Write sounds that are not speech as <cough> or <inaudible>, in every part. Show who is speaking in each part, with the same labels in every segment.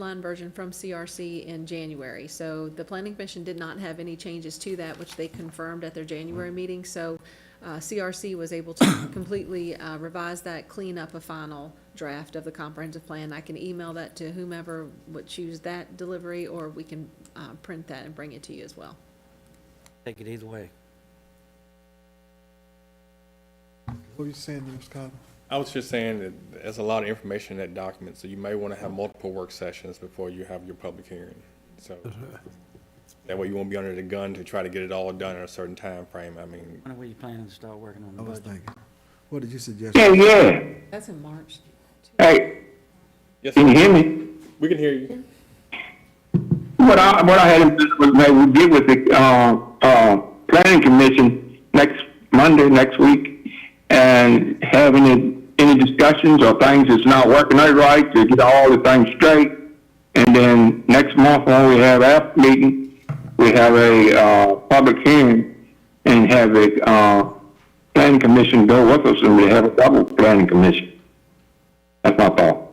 Speaker 1: line version from CRC in January. So the planning commission did not have any changes to that, which they confirmed at their January meeting. So uh, CRC was able to <coughs> completely uh, revise that, clean up a final draft of the comprehensive plan. I can email that to whomever would choose that delivery, or we can uh, print that and bring it to you as well.
Speaker 2: Take it either way.
Speaker 3: What are you saying, Mr. Cotton?
Speaker 4: I was just saying that there's a lot of information in that document, so you may want to have multiple work sessions before you have your public hearing. So that way you won't be under the gun to try to get it all done in a certain time frame. I mean,
Speaker 2: When are you planning to start working on
Speaker 3: I
Speaker 2: the
Speaker 3: was
Speaker 2: budget?
Speaker 3: thinking, what did you suggest?
Speaker 5: Yeah, yeah.
Speaker 1: That's in March.
Speaker 5: Hey,
Speaker 4: yes,
Speaker 5: can you
Speaker 4: sir.
Speaker 5: hear me?
Speaker 4: we can hear you.
Speaker 5: What I, what I had in mind was that we get with the, uh, uh, planning commission next Monday, next week, and have any, any discussions or things that's not working out right, to get all the things straight. And then next month, when we have our meeting, we have a, uh, public hearing and have a, uh, planning commission go with us, and we have a double planning commission. That's my thought.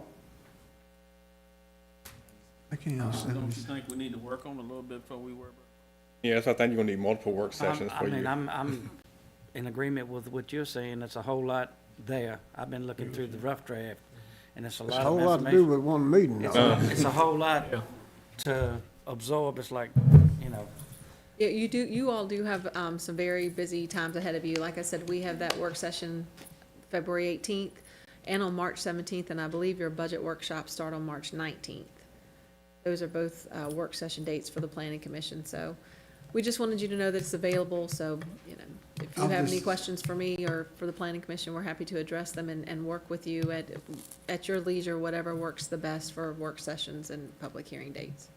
Speaker 3: I can't understand.
Speaker 6: Don't
Speaker 3: what
Speaker 6: you
Speaker 3: you-
Speaker 6: think we need to work on it a little bit before we worry about it?
Speaker 4: Yes, I think you're gonna need multiple work
Speaker 2: I'm-
Speaker 4: sessions
Speaker 2: Um, I
Speaker 4: for
Speaker 2: mean,
Speaker 4: you.
Speaker 2: I'm, I'm in agreement with what you're saying. It's a whole lot there. I've been looking through the rough draft, and it's a
Speaker 3: It's a
Speaker 2: lot
Speaker 3: whole
Speaker 2: of
Speaker 3: lot to do
Speaker 2: information.
Speaker 3: with one meeting.
Speaker 2: It's
Speaker 3: though.
Speaker 2: a- it's a whole lot to absorb. It's like, you know,
Speaker 1: Yeah, you do, you all do have um, some very busy times ahead of you. Like I said, we have that work session February eighteenth and on March seventeenth, and I believe your budget workshops start on March nineteenth. Those are both uh, work session dates for the planning commission, so we just wanted you to know that it's available, so, you know, if you
Speaker 3: I'm
Speaker 1: have any
Speaker 3: just-
Speaker 1: questions for me or for the planning commission, we're happy to address them and, and work with you at, at your leisure, whatever works the best for work sessions and public hearing dates.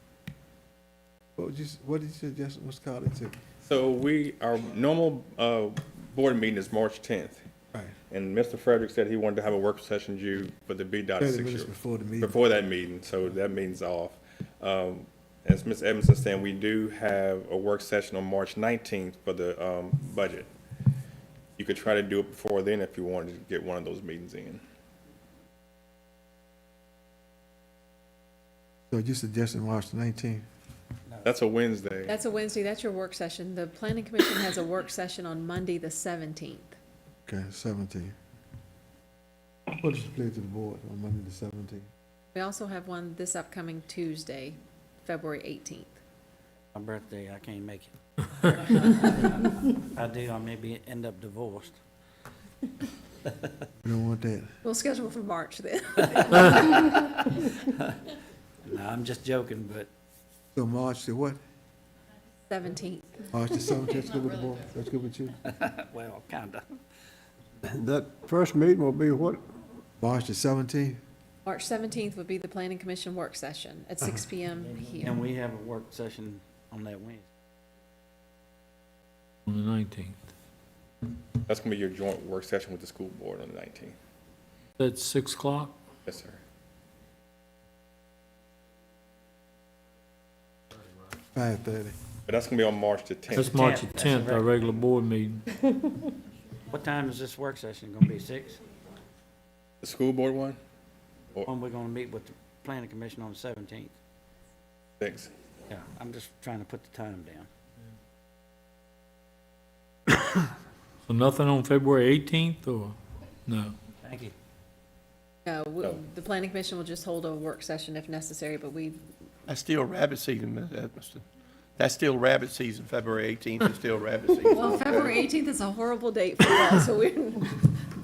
Speaker 3: What would you, s- what did you suggest, Mr. Cotton, to,
Speaker 4: So we, our normal, uh, board meeting is March tenth.
Speaker 3: right,
Speaker 4: And Mr. Frederick said he wanted to have a work session due for the B dot
Speaker 3: thirty
Speaker 4: six.
Speaker 3: minutes before the meeting?
Speaker 4: before that meeting, so that meeting's off. Um, as Ms. Edmondson saying, we do have a work session on March nineteenth for the, um, budget. You could try to do it before then if you wanted to get one of those meetings in.
Speaker 3: So you suggesting March nineteenth?
Speaker 4: That's a Wednesday.
Speaker 1: That's a Wednesday, that's your work session. The planning commission has a work session on Monday, the seventeenth.
Speaker 3: Okay, seventeen. What is the pleasure of the board on Monday the seventeenth?
Speaker 1: We also have one this upcoming Tuesday, February eighteenth.
Speaker 2: my birthday, I can't make it. I do, I maybe end up divorced.
Speaker 3: We don't want that.
Speaker 1: We'll schedule for March then.
Speaker 2: No, I'm just joking, but
Speaker 3: So March the what?
Speaker 1: Seventeenth.
Speaker 2: <laughs>
Speaker 3: March the seventeenth, that's good with the board, that's good with <laughs> you?
Speaker 2: Well, kinda.
Speaker 7: That first meeting will be what?
Speaker 3: March the seventeenth?
Speaker 1: March seventeenth would be the planning commission work session at six P M here.
Speaker 2: And we have a work session on that Wednesday.
Speaker 8: On the nineteenth.
Speaker 4: That's gonna be your joint work session with the school board on the nineteenth.
Speaker 8: That's six o'clock?
Speaker 4: Yes, sir.
Speaker 3: Five thirty.
Speaker 4: But that's gonna be on March the tenth.
Speaker 8: That's March the
Speaker 2: 10th, that's
Speaker 8: tenth, our
Speaker 2: right.
Speaker 8: regular board meeting.
Speaker 2: What time is this work session gonna be? Six?
Speaker 4: The school board one?
Speaker 2: When we're gonna meet with the planning commission on the seventeenth?
Speaker 4: Thanks.
Speaker 2: Yeah, I'm just trying to put the time down.
Speaker 8: So nothing on February eighteenth or, no?
Speaker 2: Thank you.
Speaker 1: No, we-
Speaker 4: No.
Speaker 1: the planning commission will just hold a work session if necessary, but we,
Speaker 9: That's still rabbit season, Ms. Edmiston. That's still rabbit season, February 18th is still rabbit season.
Speaker 1: well, February eighteenth is a horrible date for that, so we're, <laughs>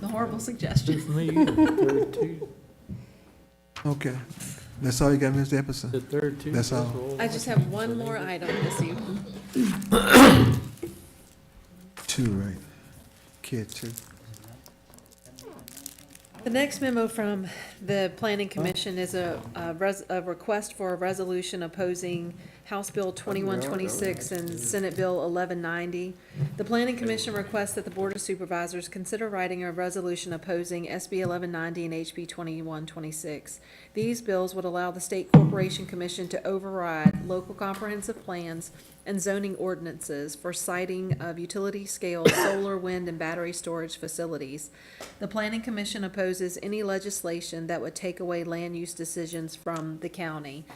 Speaker 1: the horrible suggestion.
Speaker 8: For me, the third Tuesday,
Speaker 3: Okay, that's all you got, Mr. Epperson?
Speaker 8: the third Tuesday.
Speaker 3: That's all.
Speaker 8: all.
Speaker 1: I just have one more item this evening.
Speaker 3: Two, right. Kid two.
Speaker 1: The next memo from the Planning Commission is a, a res, a request for a resolution opposing House Bill twenty-one twenty-six and Senate Bill eleven ninety. The Planning Commission requests that the Board of Supervisors consider writing a resolution opposing SB eleven ninety and HB twenty-one twenty-six. These bills would allow the State Corporation Commission to override local comprehensive plans and zoning ordinances for siting of utility-scale solar, wind, and battery storage facilities. The Planning Commission opposes any legislation that would take away land use decisions from the county.